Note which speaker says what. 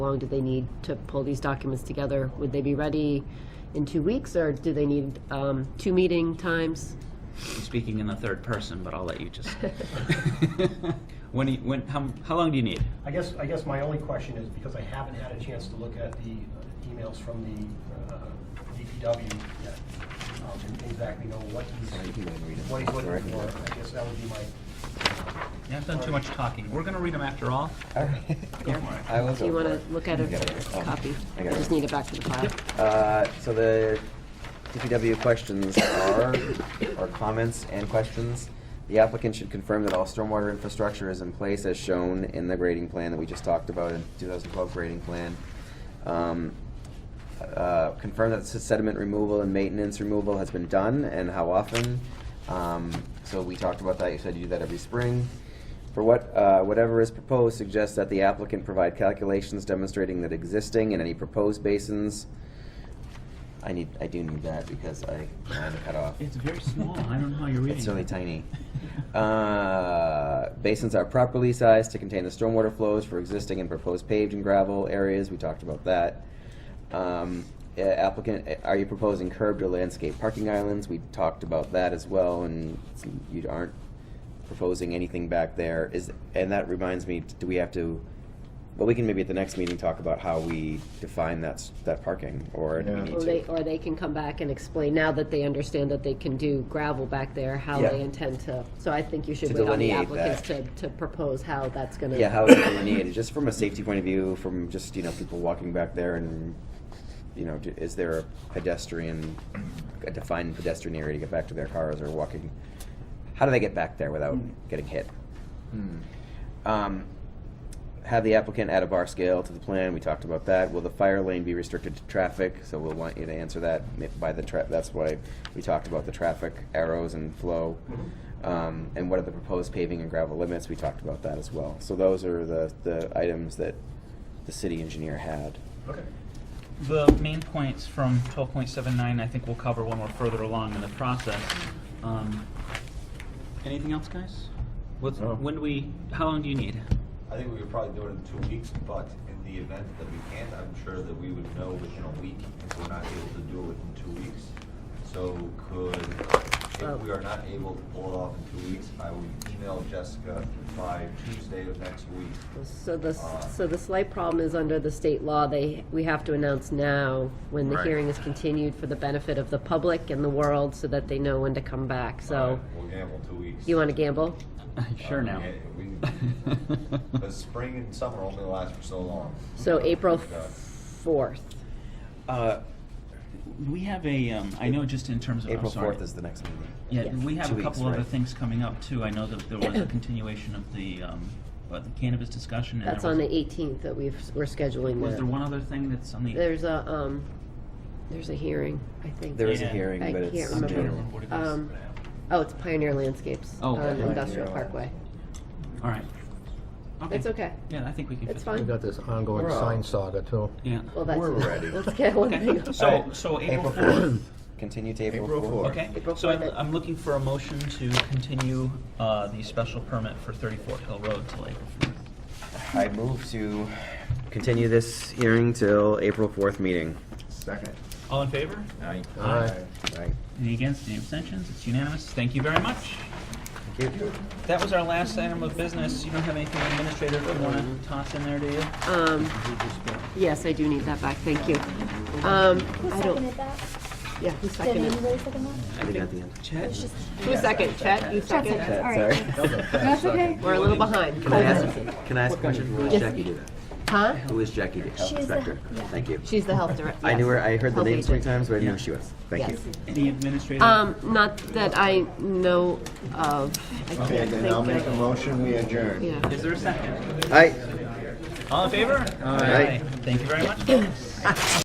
Speaker 1: How long do they need to pull these documents together? Would they be ready in two weeks, or do they need um, two meeting times?
Speaker 2: Speaking in the third person, but I'll let you just. when, do you- when, how, how long do you need?
Speaker 3: I guess, I guess my only question is, because I haven't had a chance to look at the uh, emails from the uh, DPW yet, um, and exactly know what he's, what he's looking for, I guess that would be my,
Speaker 2: You have done too much talking. We're gonna read them after all.
Speaker 4: I will
Speaker 1: Do you
Speaker 4: go
Speaker 1: want
Speaker 4: for
Speaker 1: to
Speaker 4: it.
Speaker 1: look at a
Speaker 4: You got it. Um,
Speaker 1: copy?
Speaker 4: I
Speaker 1: I
Speaker 4: got
Speaker 1: just
Speaker 4: it.
Speaker 1: need it back for the file.
Speaker 4: Uh, so the DPW questions are, or comments and questions. The applicant should confirm that all stormwater infrastructure is in place as shown in the grading plan that we just talked about in 2012 grading plan. Um, uh, confirm that sediment removal and maintenance removal has been done and how often. Um, so we talked about that. You said you do that every spring. For what, uh, whatever is proposed suggests that the applicant provide calculations demonstrating that existing and any proposed basins. I need, I do need that because I had it cut off.
Speaker 2: It's very small. I don't know how you're reading.
Speaker 4: It's really tiny. Uh, basins are properly sized to contain the stormwater flows for existing and proposed paved and gravel areas. We talked about that. Um, eh, applicant, eh, are you proposing curbed or landscape parking islands? We talked about that as well, and you aren't proposing anything back there. Is and that reminds me, do we have to? Well, we can maybe at the next meeting talk about how we define that s- that parking, or do we need
Speaker 1: Or
Speaker 4: to?
Speaker 1: they, or they can come back and explain, now that they understand that they can do gravel back there, how
Speaker 4: Yeah.
Speaker 1: they intend to, so I think you should
Speaker 4: To
Speaker 1: wait on the
Speaker 4: delineate that.
Speaker 1: applicants to, to propose how that's gonna.
Speaker 4: Yeah, how is it delineated? Just from a safety point of view, from just, you know, people walking back there and, you know, do- is there a pedestrian, a defined pedestrian area to get back to their cars or walking? How do they get back there without getting hit? Hmm. Um, have the applicant add a bar scale to the plan, we talked about that. Will the fire lane be restricted to traffic? So we'll want you to answer that if by the tra, that's why we talked about the traffic arrows and flow. Um, and what are the proposed paving and gravel limits? We talked about that as well. So those are the, the items that the city engineer had.
Speaker 3: okay.
Speaker 2: The main points from 12.79, I think we'll cover when we're further along in the process. Um, anything else, guys? What's,
Speaker 5: No.
Speaker 2: When do we? How long do you need?
Speaker 6: I think we could probably do it in two weeks, but in the event that we can't, I'm sure that we would know within a week if we're not able to do it within two weeks. So could,
Speaker 1: Oh.
Speaker 6: if we are not able to pull it off in two weeks, I would email Jessica by Tuesday of next week.
Speaker 1: So the, so the slight problem is under the state law, they, we have to announce now when the
Speaker 6: Right.
Speaker 1: hearing is continued for the benefit of the public and the world, so that they know when to come back, so.
Speaker 6: Uh, We'll gamble two weeks.
Speaker 1: You wanna gamble?
Speaker 2: Uh, sure now.
Speaker 6: Yeah, we-
Speaker 4: Uh,
Speaker 6: But spring and summer only last for so long.
Speaker 1: So April
Speaker 6: Yeah.
Speaker 1: fourth,
Speaker 4: Uh,
Speaker 2: we have a. Um, I know just in terms of. I'm
Speaker 4: April
Speaker 2: sorry.
Speaker 4: fourth is the next meeting.
Speaker 2: Yeah,
Speaker 1: Yes.
Speaker 2: we have
Speaker 4: Two
Speaker 2: a couple
Speaker 4: weeks,
Speaker 2: other
Speaker 4: right.
Speaker 2: things coming up too. I know that there was a continuation of the, um, uh, the cannabis discussion. and
Speaker 1: that's
Speaker 2: there
Speaker 1: on
Speaker 2: was-
Speaker 1: the eighteenth that we've, we're scheduling
Speaker 2: Was there
Speaker 1: now.
Speaker 2: one other thing that's on the?
Speaker 1: There's a, um, there's a hearing, I think.
Speaker 4: There is a
Speaker 2: Yeah.
Speaker 4: hearing,
Speaker 1: I
Speaker 4: but
Speaker 1: can't
Speaker 4: it's
Speaker 1: remember.
Speaker 4: general.
Speaker 2: What it is.
Speaker 1: Um, oh, it's Pioneer Landscapes
Speaker 2: Oh,
Speaker 1: on
Speaker 2: Pioneer
Speaker 1: Industrial
Speaker 4: Landscapes.
Speaker 1: Parkway.
Speaker 2: All right. Okay.
Speaker 1: It's okay.
Speaker 2: Yeah, I think we can.
Speaker 1: It's
Speaker 2: fit that.
Speaker 5: We
Speaker 1: fine.
Speaker 5: got this ongoing
Speaker 4: We're all-
Speaker 5: sign saga too.
Speaker 2: Yeah.
Speaker 1: Well, that's.
Speaker 5: We're ready.
Speaker 1: Let's get one thing.
Speaker 2: Okay. So, so April fourth.
Speaker 4: Continue to April
Speaker 5: April
Speaker 4: fourth.
Speaker 5: fourth.
Speaker 2: Okay.
Speaker 1: April
Speaker 2: So I'm,
Speaker 1: fourth.
Speaker 2: I'm looking for a motion to continue uh, the special permit for 34 Hill Road till April fourth.
Speaker 4: I move to continue this hearing till April fourth meeting.
Speaker 5: Second.
Speaker 2: All in favor?
Speaker 5: Aye. Aye.
Speaker 4: Right.
Speaker 2: Any against? Any abstentions? It's unanimous. Thank you very much.
Speaker 4: Thank you.
Speaker 2: That was our last item of business. You don't have anything administrative you want to toss in there, do you?
Speaker 1: Um, yes, I do need that back, thank you. Um,
Speaker 7: Who
Speaker 1: I don't,
Speaker 7: seconded that?
Speaker 1: yeah, who's
Speaker 7: Did
Speaker 1: seconded?
Speaker 7: anybody second that?
Speaker 4: I think at the end.
Speaker 2: Chad?
Speaker 1: Who's second, Chet, you second?
Speaker 7: Chad seconded,
Speaker 4: Okay,
Speaker 7: all right.
Speaker 4: sorry.
Speaker 7: That's okay.
Speaker 1: We're a little behind.
Speaker 4: Can I ask, can I ask a question? Who is
Speaker 1: Yes.
Speaker 4: Jackie Duda?
Speaker 1: Huh?
Speaker 4: Who is Jackie Duda, health
Speaker 7: She's the-
Speaker 4: inspector?
Speaker 7: yeah.
Speaker 4: Thank you.
Speaker 1: She's the health director.
Speaker 4: I knew her, I heard the
Speaker 1: Health
Speaker 4: name three
Speaker 1: agent.
Speaker 4: times, but I
Speaker 2: Yeah.
Speaker 4: knew she was. Thank you.
Speaker 1: Yes.
Speaker 2: Any administrative?
Speaker 1: Um, not that I know of. I can't
Speaker 5: Okay, then
Speaker 1: think
Speaker 5: I'll
Speaker 1: of-
Speaker 5: make a motion, we adjourn.
Speaker 1: Yeah.
Speaker 2: Is there a second?
Speaker 4: Aye.
Speaker 2: All in favor?
Speaker 4: Aye.
Speaker 2: Thank you very much, folks.